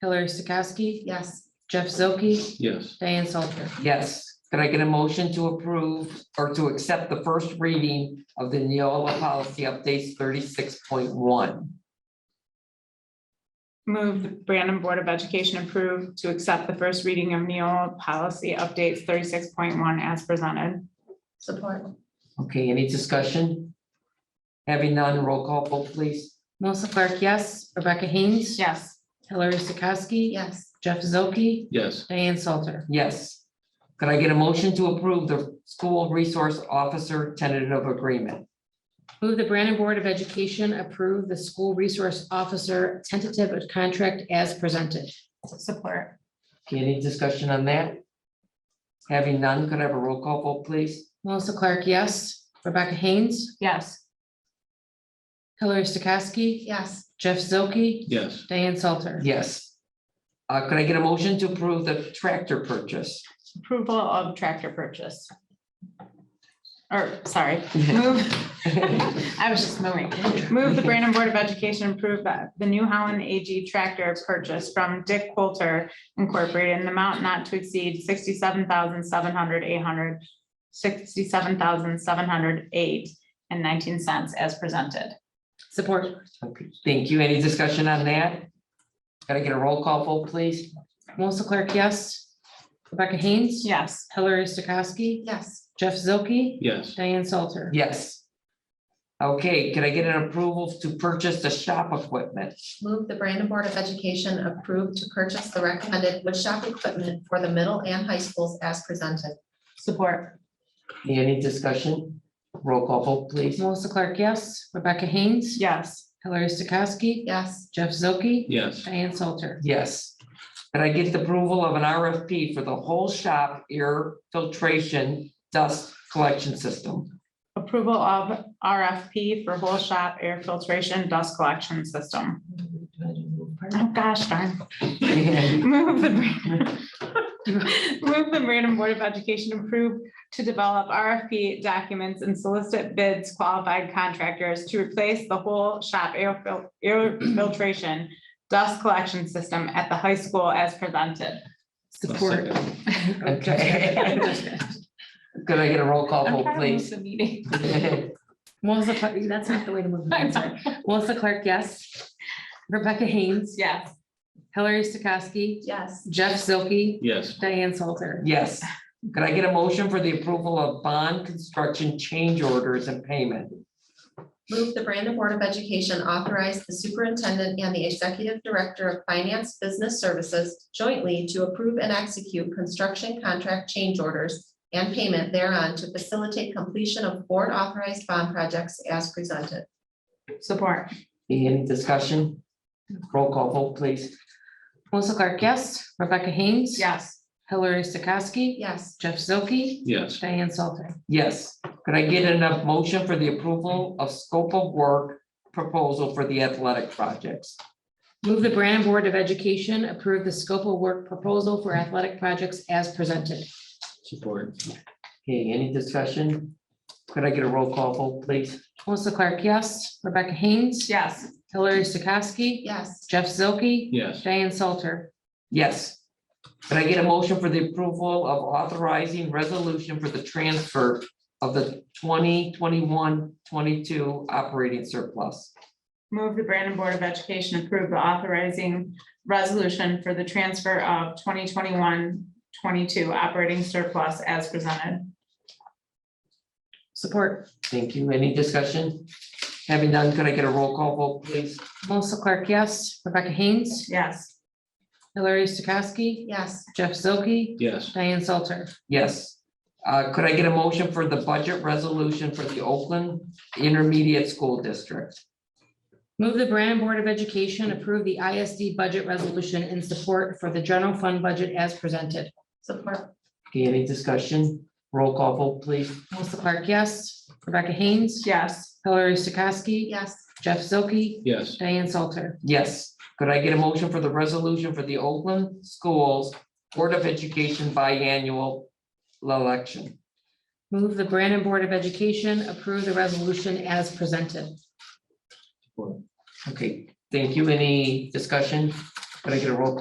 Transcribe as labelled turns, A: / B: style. A: Hillary Stokowski,
B: Yes.
A: Jeff Zilke,
C: Yes.
A: Diane Salter.
D: Yes, could I get a motion to approve or to accept the first reading of the Neola policy updates thirty-six point one?
E: Move the Brandon Board of Education approve to accept the first reading of Neola policy updates thirty-six point one as presented.
B: Support.
D: Okay, any discussion? Having none, roll call vote please.
A: Melissa Clark, yes. Rebecca Haynes.
E: Yes.
A: Hillary Stokowski.
B: Yes.
A: Jeff Zilke,
C: Yes.
A: Diane Salter.
D: Yes. Could I get a motion to approve the school resource officer tentative agreement?
A: Move the Brandon Board of Education approve the school resource officer tentative of contract as presented.
E: Support.
D: Okay, any discussion on that? Having none, could I have a roll call vote please?
A: Melissa Clark, yes. Rebecca Haynes.
E: Yes.
A: Hillary Stokowski.
B: Yes.
A: Jeff Zilke,
C: Yes.
A: Diane Salter.
D: Yes. Uh, could I get a motion to approve the tractor purchase?
E: Approval of tractor purchase. Or, sorry, move. I was just moving. Move the Brandon Board of Education approve that the New Holland AG tractor purchase from Dick Coulter Incorporated in the amount not to exceed sixty-seven thousand seven hundred eight hundred sixty-seven thousand seven hundred eight and nineteen cents as presented.
A: Support.
D: Okay, thank you. Any discussion on that? Can I get a roll call vote, please?
A: Melissa Clark, yes. Rebecca Haynes.
E: Yes.
A: Hillary Stokowski.
B: Yes.
A: Jeff Zilke,
C: Yes.
A: Diane Salter.
D: Yes. Okay, can I get an approval to purchase the shop equipment?
B: Move the Brandon Board of Education approve to purchase the recommended woodshop equipment for the middle and high schools as presented.
E: Support.
D: Any discussion? Roll call vote, please.
A: Melissa Clark, yes. Rebecca Haynes.
E: Yes.
A: Hillary Stokowski.
B: Yes.
A: Jeff Zilke.
C: Yes.
A: Diane Salter.
D: Yes. Can I get the approval of an RFP for the whole shop air filtration dust collection system?
E: Approval of RFP for whole shop air filtration dust collection system. Oh, gosh darn. Move the Brandon. Move the Brandon Board of Education approve to develop RFP documents and solicit bids qualified contractors to replace the whole shop air fil- air filtration dust collection system at the high school as presented.
A: Support.
D: Okay. Could I get a roll call
E: I'm
D: vote,
E: trying to move
D: please?
E: the meeting.
A: Melissa, Clark- that's not the way to move.
E: I'm
A: it.
E: sorry.
A: Melissa Clark, yes. Rebecca Haynes.
E: Yes.
A: Hillary Stokowski.
B: Yes.
A: Jeff Zilke.
C: Yes.
A: Diane Salter.
D: Yes. Could I get a motion for the approval of bond construction change orders and payment?
B: Move the Brandon Board of Education authorize the superintendent and the executive director of finance business services jointly to approve and execute construction contract change orders and payment thereon to facilitate completion of board authorized bond projects as presented.
E: Support.
D: Any discussion? Roll call vote, please.
A: Melissa Clark, yes. Rebecca Haynes.
E: Yes.
A: Hillary Stokowski.
B: Yes.
A: Jeff Zilke.
C: Yes.
A: Diane Salter.
D: Yes. Could I get enough motion for the approval of scope of work proposal for the athletic projects?
A: Move the Brandon Board of Education approve the scope of work proposal for athletic projects as presented.
C: Support.
D: Okay, any discussion? Could I get a roll call vote, please?
A: Melissa Clark, yes. Rebecca Haynes.
E: Yes.
A: Hillary Stokowski.
B: Yes.
A: Jeff Zilke.
C: Yes.
A: Diane Salter.
D: Yes. Could I get a motion for the approval of authorizing resolution for the transfer of the 2021-22 operating surplus?
E: Move the Brandon Board of Education approve the authorizing resolution for the transfer of 2021-22 operating surplus as presented.
A: Support.
D: Thank you. Any discussion? Having done, could I get a roll call vote, please?
A: Melissa Clark, yes. Rebecca Haynes.
E: Yes.
A: Hillary Stokowski.
B: Yes.
A: Jeff Zilke.
C: Yes.
A: Diane Salter.
D: Yes. Uh, could I get a motion for the budget resolution for the Oakland Intermediate School District?
A: Move the Brandon Board of Education approve the ISD budget resolution in support for the general fund budget as presented.
B: Support.
D: Okay, any discussion? Roll call vote, please.
A: Melissa Clark, yes. Rebecca Haynes.
E: Yes.
A: Hillary Stokowski.
B: Yes.
A: Jeff Zilke.
C: Yes.
A: Diane Salter.
D: Yes. Could I get a motion for the resolution for the Oakland Schools Board of Education biannual election?
A: Move the Brandon Board of Education approve the resolution as presented.
D: Okay, thank you. Any discussion? Could I get a roll call